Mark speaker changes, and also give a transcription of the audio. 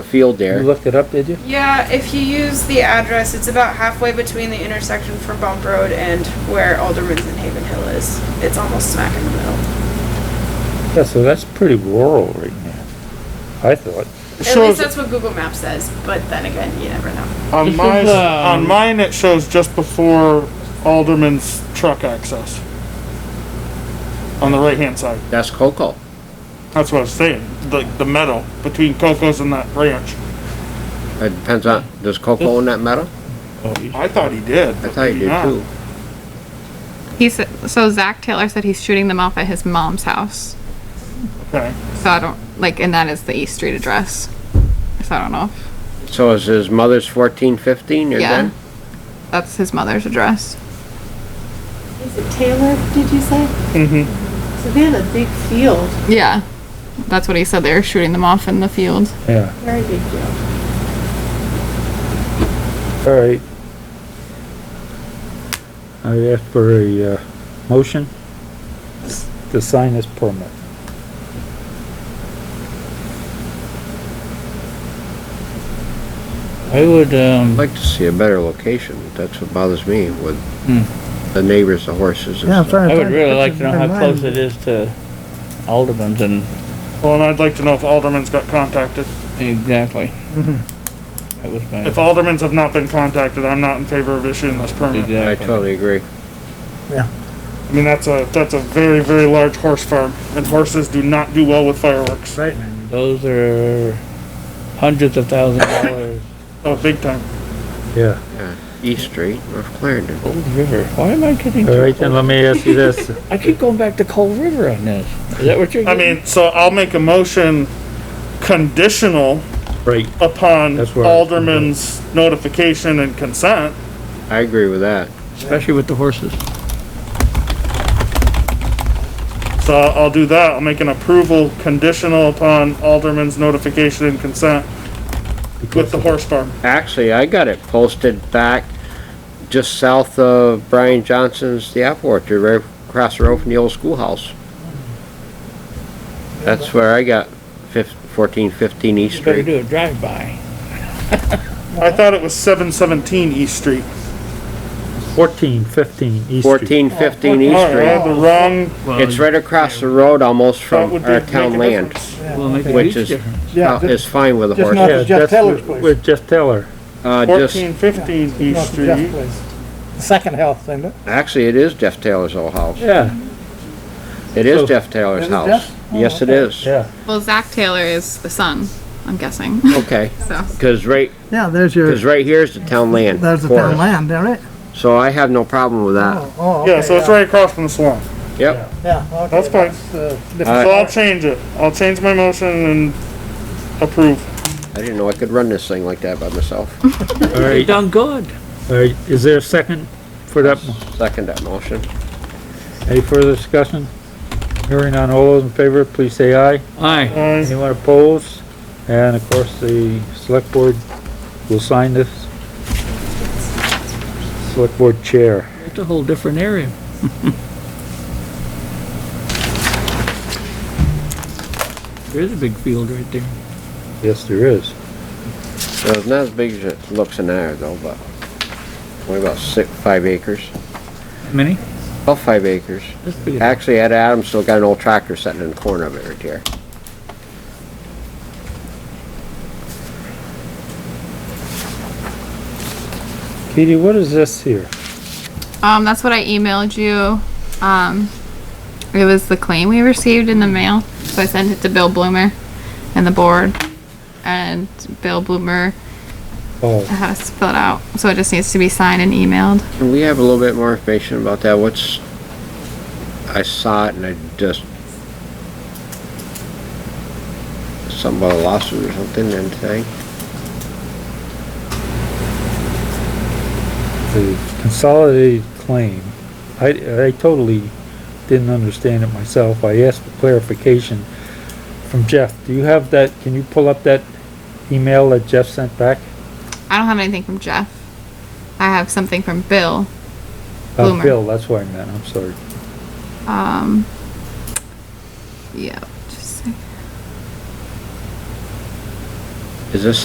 Speaker 1: field
Speaker 2: You
Speaker 1: there.
Speaker 2: looked it up, did you?
Speaker 3: Yeah, if you use the address, it's about halfway between the intersection for Bump Road and where Alderman's and Haven Hill is. It's almost smack in the middle.
Speaker 2: Yeah, so that's pretty rural right now, I thought.
Speaker 3: At least
Speaker 4: Shows,
Speaker 3: that's what Google Maps says, but then again, you never know.
Speaker 4: on
Speaker 5: This
Speaker 4: mine,
Speaker 5: is, um,
Speaker 4: on mine it shows just before Alderman's truck access. On the right hand side.
Speaker 1: That's Coco.
Speaker 4: That's what I was saying. The, the meadow between Coco's and that ranch.
Speaker 1: It depends on, does Coco own that metal?
Speaker 4: I thought he did.
Speaker 1: I thought you did too.
Speaker 6: He said, so Zach Taylor said he's shooting them off at his mom's house.
Speaker 4: Okay.
Speaker 6: So I don't, like, and that is the East Street address. So I don't know. if-
Speaker 1: So is his mother's fourteen fifteen or
Speaker 6: Yeah.
Speaker 1: then?
Speaker 6: That's his mother's address.
Speaker 7: Is it Taylor, did you say?
Speaker 4: Mm-hmm.
Speaker 7: So they had a big field,
Speaker 6: Yeah. That's what he said. They were shooting them off in the field.
Speaker 2: Yeah,
Speaker 7: very big field.
Speaker 2: all right. I asked for a, uh, motion to sign this permit.
Speaker 5: I would,
Speaker 1: I'd
Speaker 5: um,
Speaker 1: like to see a better location. That's what bothers me with
Speaker 5: Hmm.
Speaker 1: the neighbors, the horses
Speaker 8: Yeah,
Speaker 1: and
Speaker 8: I'm
Speaker 1: stuff.
Speaker 8: trying to.
Speaker 5: I would really like to know how
Speaker 8: Never
Speaker 5: close
Speaker 8: mind.
Speaker 5: it is to Alderman's and,
Speaker 4: Well, and I'd like to know if Alderman's got contacted.
Speaker 5: exactly. That was my,
Speaker 4: If Alderman's have not been contacted, I'm not in favor of issuing this permit.
Speaker 1: I
Speaker 5: exactly.
Speaker 1: totally agree.
Speaker 4: I mean, that's a, that's a very, very large horse farm and horses do not do well with fireworks.
Speaker 8: Right.
Speaker 5: Those are hundreds of thousands of dollars.
Speaker 4: Oh, big time.
Speaker 2: Yeah,
Speaker 1: East Street, North Clarendon.
Speaker 5: Cold River. Why am I getting?
Speaker 2: all right, then let me ask you this.
Speaker 5: I keep going back to Cold River on this. Is that what you're?
Speaker 4: I
Speaker 5: getting?
Speaker 4: mean, so I'll make a motion conditional
Speaker 2: Right,
Speaker 4: upon
Speaker 2: That's where I was
Speaker 4: Alderman's notification and consent.
Speaker 1: I agree with that.
Speaker 5: Especially with the horses.
Speaker 4: So I'll do that. I'll make an approval conditional upon Alderman's notification and consent with the horse farm.
Speaker 1: Actually, I got it posted back just south of Brian Johnson's, the apple orchard, right across the road from the old schoolhouse. That's where I got fif- fourteen fifteen East
Speaker 5: You better
Speaker 1: Street.
Speaker 5: do a drive-by.
Speaker 4: I thought it was seven seventeen East Street.
Speaker 2: fourteen, fifteen East Street.
Speaker 1: Fourteen fifteen
Speaker 8: Oh,
Speaker 1: East
Speaker 4: Alright, I
Speaker 1: Street.
Speaker 4: had the wrong,
Speaker 1: It's right across the road almost
Speaker 4: that
Speaker 1: from
Speaker 4: would
Speaker 1: our
Speaker 4: make
Speaker 1: town
Speaker 4: make a
Speaker 1: land.
Speaker 4: difference.
Speaker 5: Will make a
Speaker 1: Which
Speaker 5: huge
Speaker 1: is-
Speaker 5: difference.
Speaker 8: Yeah,
Speaker 1: Uh, It's fine with a
Speaker 8: just
Speaker 1: horse.
Speaker 8: not-
Speaker 2: Yeah,
Speaker 8: Jeff
Speaker 2: Uh, that's
Speaker 8: Taylor's
Speaker 2: wh-
Speaker 8: place.
Speaker 2: With Jeff Taylor.
Speaker 1: Uh, just,
Speaker 4: Fourteen fifteen East
Speaker 8: North of Jeff
Speaker 4: Street.
Speaker 8: Place. Second house, isn't it?
Speaker 1: actually, it is Jeff Taylor's old house.
Speaker 2: Yeah,
Speaker 1: It is
Speaker 2: So-
Speaker 1: Jeff Taylor's
Speaker 8: Is it
Speaker 1: house.
Speaker 8: Jeff? Oh,
Speaker 1: Yes, it
Speaker 8: okay.
Speaker 1: is.
Speaker 2: yeah.
Speaker 6: Well, Zach Taylor is the son, I'm guessing.
Speaker 1: Okay,
Speaker 6: So,
Speaker 1: cause right,
Speaker 8: Yeah, there's your,
Speaker 1: cause right here is the town land.
Speaker 8: there's the
Speaker 1: for
Speaker 8: town
Speaker 1: us.
Speaker 8: land, all right?
Speaker 1: So I have no problem with that.
Speaker 8: Oh, oh,
Speaker 4: Yeah,
Speaker 8: okay,
Speaker 4: so it's right across from the swamp.
Speaker 1: Yep.
Speaker 8: Yeah, okay.
Speaker 4: That's fine.
Speaker 8: uh,
Speaker 1: All
Speaker 4: So
Speaker 1: right.
Speaker 8: different
Speaker 4: I'll change it. I'll change my motion and approve.
Speaker 1: I didn't know I could run this thing like that by myself.
Speaker 2: All
Speaker 5: You've
Speaker 2: right,
Speaker 5: done good.
Speaker 2: all right, is there a second for that? mo-
Speaker 1: Second that motion.
Speaker 2: Any further discussion? Hearing on all those in favor, please say aye.
Speaker 5: Aye.
Speaker 4: Aye.
Speaker 2: Anyone opposed? And of course, the select board will sign this. Select board chair.
Speaker 5: It's a whole different area. There is a big field right there.
Speaker 2: Yes, there is.
Speaker 1: So it's not as big as it looks in there though, but what about six, five acres?
Speaker 5: How many?
Speaker 1: About five acres.
Speaker 5: That's big.
Speaker 1: Actually, Ed Adams still got an old tractor sitting in the corner of it right there.
Speaker 2: Katie, what is this here?
Speaker 6: um, that's what I emailed you. Um, it was the claim we received in the mail. So I sent it to Bill Bloomer and the board. And Bill Bloomer
Speaker 2: Oh,
Speaker 6: had us fill it out. So it just needs to be signed and emailed.
Speaker 1: Can we have a little bit more information about that? What's, I saw it and I just, something about a lawsuit or something and thing.
Speaker 2: the consolidated claim. I, I totally didn't understand it myself. I asked for clarification from Jeff. Do you have that, can you pull up that email that Jeff sent back?
Speaker 6: I don't have anything from Jeff. I have something from Bill.
Speaker 2: Uh,
Speaker 6: Bloomer.
Speaker 2: Bill, that's what I meant, I'm sorry.
Speaker 6: Um, yeah, just a second.
Speaker 1: Is this